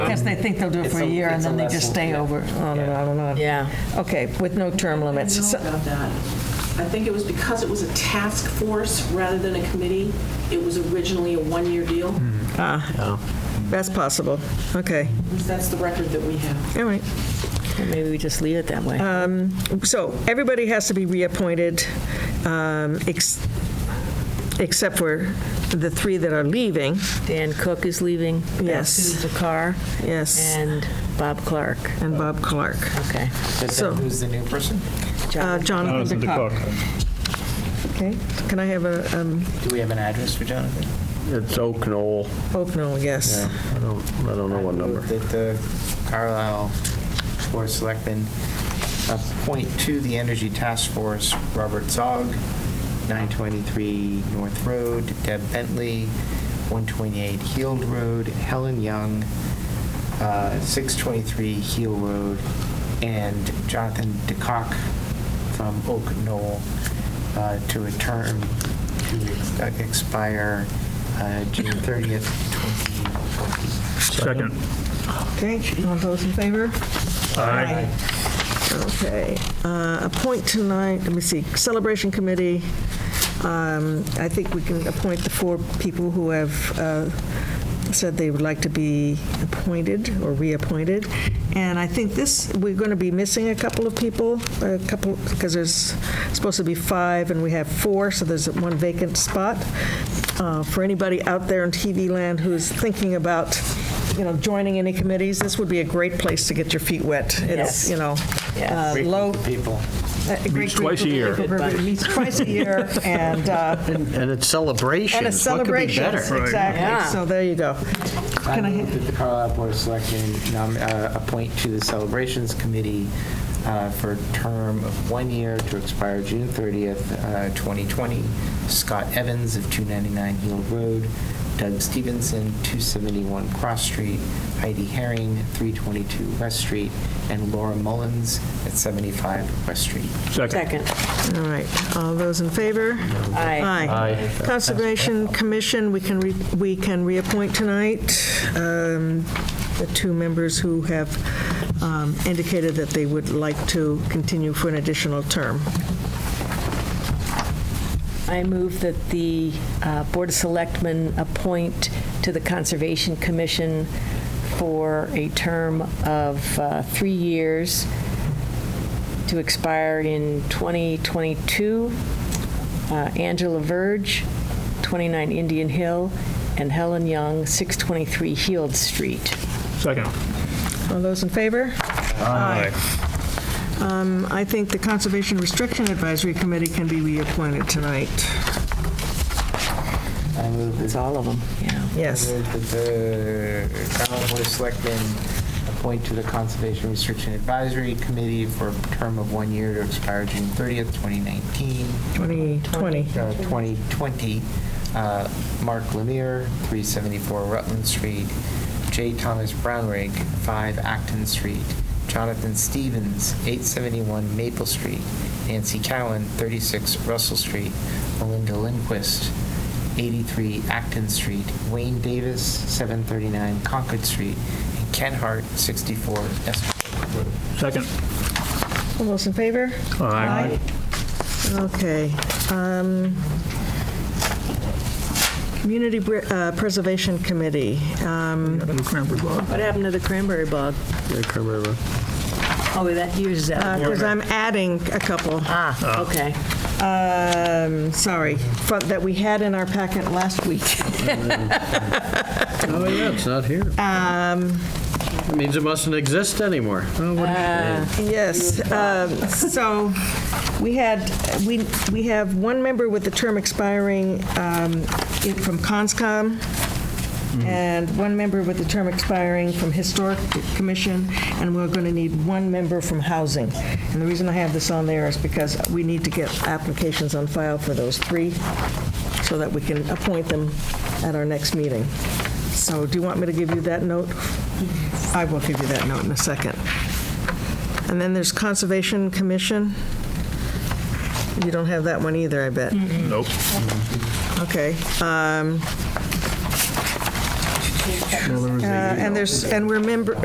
guess they think they'll do it It's for a a- year, and it's a then they just lesson, stay yeah. over, on and on and on. Yeah. Okay, with no term limits. I So- don't know about that. I think it was because it was a task force rather than a committee. It was originally a one-year deal. That's possible. Okay, That's the record that we have. all right. Well, Maybe we just leave it that way. So everybody has to be reappointed, um, ex- except for the three that are leaving. Dan Cook is leaving. Yes. Sue Zakar. Yes, And Bob Clark. and Bob Clark. Okay. But So- then who's the new person? Uh, Jonathan Jonathan DeCock. DeCock. Okay, can I have a, um, Do we have an address for Jonathan? It's Oak Knoll. Oak Knoll, yes. I don't, I don't know what number. That the Carlisle Board of Selectmen appoint to the Energy Task Force Robert Zog, 923 North Road, Deb Bentley, 128 Heald Road, Helen Young, uh, 623 Heel Road, and Jonathan DeCock from Oak Knoll uh, to a term to ex- expire uh, June 30th, 2020. Second. Okay, all those in favor? Aye. Okay, uh, appoint tonight, let me see, Celebration Committee, um, I think we can appoint the four people who have uh, said they would like to be appointed or reappointed. And I think this, we're going to be missing a couple of people, a couple, because there's supposed to be five, and we have four, so there's one vacant spot. Uh, For anybody out there in TV land who's thinking about, you know, joining any committees, this would be a great place to get your feet wet. It's, Yes. you know, uh, Yes. low, people. uh, great Meets twice a group year. of people. Meets twice a year, and, uh, And it's celebrations. and a celebration. What could be better? Yeah. Um, Exactly, so there you go. I Can I move that the Carlisle Board of Selectmen nom- uh, appoint to the Celebrations Committee uh, for a term of one year to expire June 30th, uh, 2020, Scott Evans of 299 Hill Road, Doug Stevenson, 271 Cross Street, Heidi Herring, 322 West Street, and Laura Mullins at 75 West Street. Second. Second. All right, all those in favor? Aye. Aye. Conservation Commission, we can, re- we can reappoint tonight um, the two members who have um, indicated that they would like to continue for an additional term. I move that the uh, Board of Selectmen appoint to the Conservation Commission for a term of uh, three years to expire in 2022, uh, Angela Verge, 29 Indian Hill, and Helen Young, 623 Heald Street. Second. All those in favor? Aye. Um, I think the Conservation Restriction Advisory Committee can be reappointed tonight. I move that It's all of them, yeah. Yes. I move that the Carlisle Board of Selectmen appoint to the Conservation Restriction Advisory Committee for a term of one year to expire June 30th, 2019, 2020. uh, 2020, uh, Mark Lemire, 374 Rutland Street, J. Thomas Brownrigg, 5 Acton Street, Jonathan Stevens, 871 Maple Street, Nancy Cowan, 36 Russell Street, Melinda Lindquist, 83 Acton Street, Wayne Davis, 739 Concord Street, and Ken Hart, 64 Essex Road. Second. All those in favor? Aye. Okay. um, Community Br- uh, Preservation Committee. Um, Cranberry bog. What happened to the cranberry bog? Yeah, Cranberry bog. Oh, that year's uh, out. Because I'm adding a couple, Ah, okay. um, sorry, fro- that we had in our packet last week. Oh, yeah, it's not here. That means it mustn't exist anymore. Oh, what a shame. Yes, um, so we had, we, we have one member with the term expiring um, in- from CONSCOM, and one member with the term expiring from Historic Commission, and we're going to need one member from Housing. And the reason I have this on there is because we need to get applications on file for those three, so that we can appoint them at our next meeting. So do you want me to give you that note? I will give you that note in a second. And then there's Conservation Commission. You don't have that one either, I bet. Nope. Okay. um, Well, there was Uh, a- And there's, and we're member,